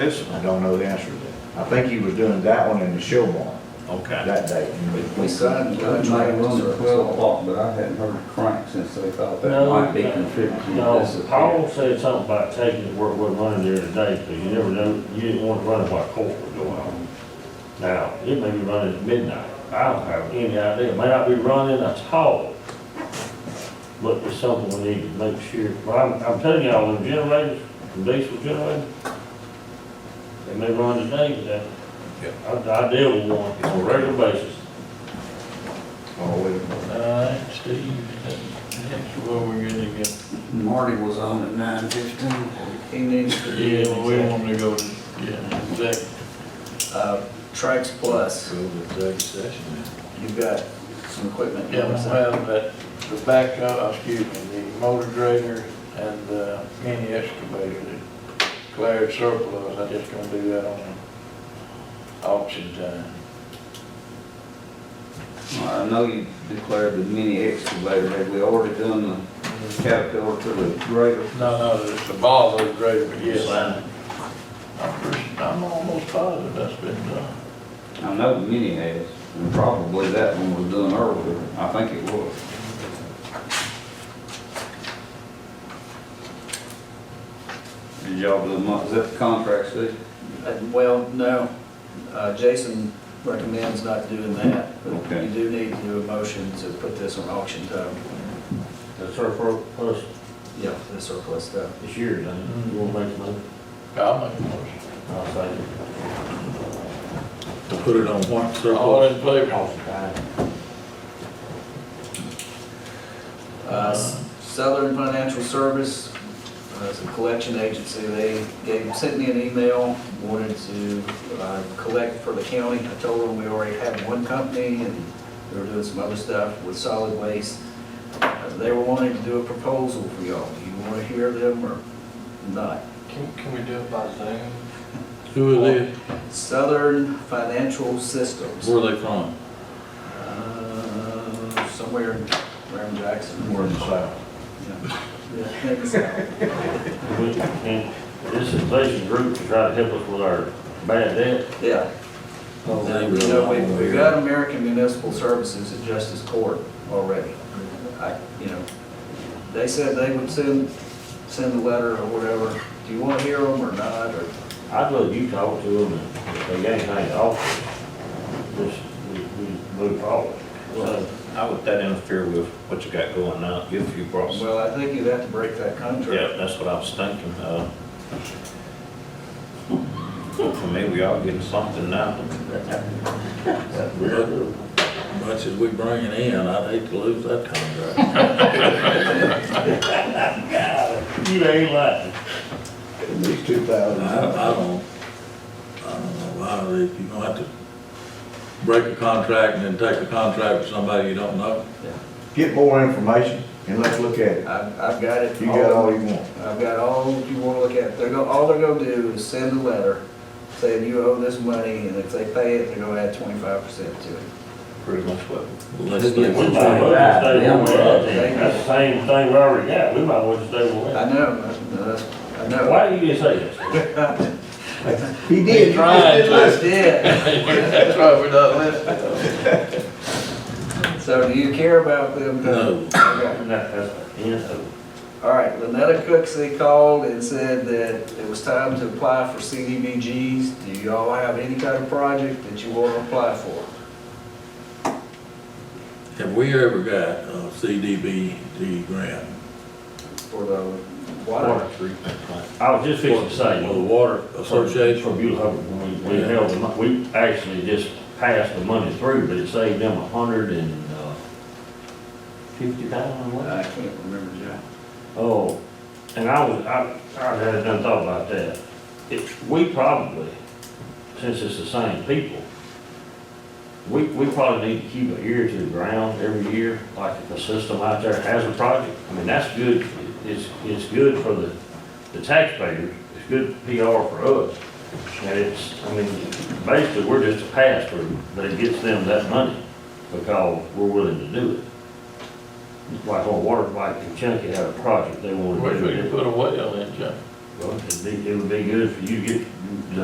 This, I don't know the answer to that. I think he was doing that one in the show barn Okay. that day. We signed It might have contracts. run at twelve o'clock, but I hadn't heard a crank since they thought that No, might be no, contributing to this. No, Paul affair. said something about taking it where it wasn't running there today, so you never know, you didn't want to run it while court was going on. Now, it may be running at midnight, I don't have any idea, it may not be running at all. But it's something we need to make sure, but I'm, I'm telling y'all, the generators, the diesel generators, they may run today, but I, I deal with one on a regular basis. Oh, wait a minute. All right, Steve, that's where we're gonna get. Marty was on at nine fifteen. He needs to be Yeah, we in. want to go, to- yeah, exactly. Uh, Trax Plus, Go to executive session then. you've got some equipment. you Yeah, wanna we say? have that, the backhoe, excuse me, the motor grader and the mini excavator that declared surplus, I just gonna do that on auction time. I know you declared the mini excavator, have we already done the caterpillar to the grader? No, no, it's the Volvo grader, but yes, I- I'm, pretty- I'm almost positive that's been done. I know the mini has, and probably that one was done earlier, I think it was. Did y'all do, mo- is that the contract, Steve? Uh, Well, no, Uh, Jason recommends not doing that, but Okay. you do need to do a motion to put this on auction time. The surplus, plus Yeah, the surplus stuff. this year, then, you want to make some, money? I'll make a motion. I'll say. To put it on what All surplus? in favor? Uh, Southern Financial Service, uh, is a collection agency, they gave, sent me an email, wanted to uh, collect for the county. I told them we already had one company and they were doing some other stuff with solid waste. Uh, They were wanting to do a proposal for y'all. Do you want to hear them or not? Can, can we do it by Zoom? Who are they, Southern Financial Systems, Where are they from? uh, somewhere around Jackson. We're in the south. Yeah. Yeah, I think so. And this inflation group to try to help us with our bad debt. Yeah. Oh, they You really know, want we've, to we've do got American Municipal Services at Justice Court already. I, you know, they said they would send, send a letter or whatever. Do you want to hear them or not, or? I'd let you talk to them and if they got anything to offer, just, we, we move forward. Well, how would that interfere with what you got going now, if you brought, Well, I think you'd have to break that yeah, contract. that's what I was thinking, uh. For me, we are getting something now. Much as we bring it in, I'd hate to lose that contract. You ain't lying. it. At least two I, thousand. I don't, I don't know why, they- if you're gonna have to break a contract and then take a contract with somebody you don't know, Get more information and let's look at it. I've, I've got it. You got all you want. I've got all you want to look at. They're going, all they're going to do is send a letter saying you owe this money, and if they pay it, they're going to add twenty-five percent to it. Pretty much what, unless they. We might as well just stay where we're at then. That's the same thing we already got. We might as well just stay where we're I at. know, that's, I know. Why do you say this? He did. Trying to. That's it. That's why we're not listening. So do you care about them? No. Okay. And that- that's the end of it. All right, Lynetta Cooksey called and said that it was time to apply for CDBGs. Do you all have any kind of project that you want to apply for? Have we ever got a CDBG grant? For the water? Water treatment plant. I was just fixing to say. Or the water For association? Beulah Hubbard, we, we held, the mon- we actually just passed the money through, but it saved them a hundred and, uh, fifty thousand, what? I can't remember, John. Oh, and I was, I, I hadn't done thought about that. It, we probably, since it's the same people, we, we probably need to keep an ear to the ground every year, like if a system out there has a project. I mean, that's good, it's, it's good for the, the taxpayers, it's good PR for us. And it's, I mean, basically, we're just a pass-through, but it gets them that money because we're willing to do it. Like on water, like in Chunky had a project they wanted Wish to do. we could put a whale in, John. Well, it'd be, it would be good for you to get the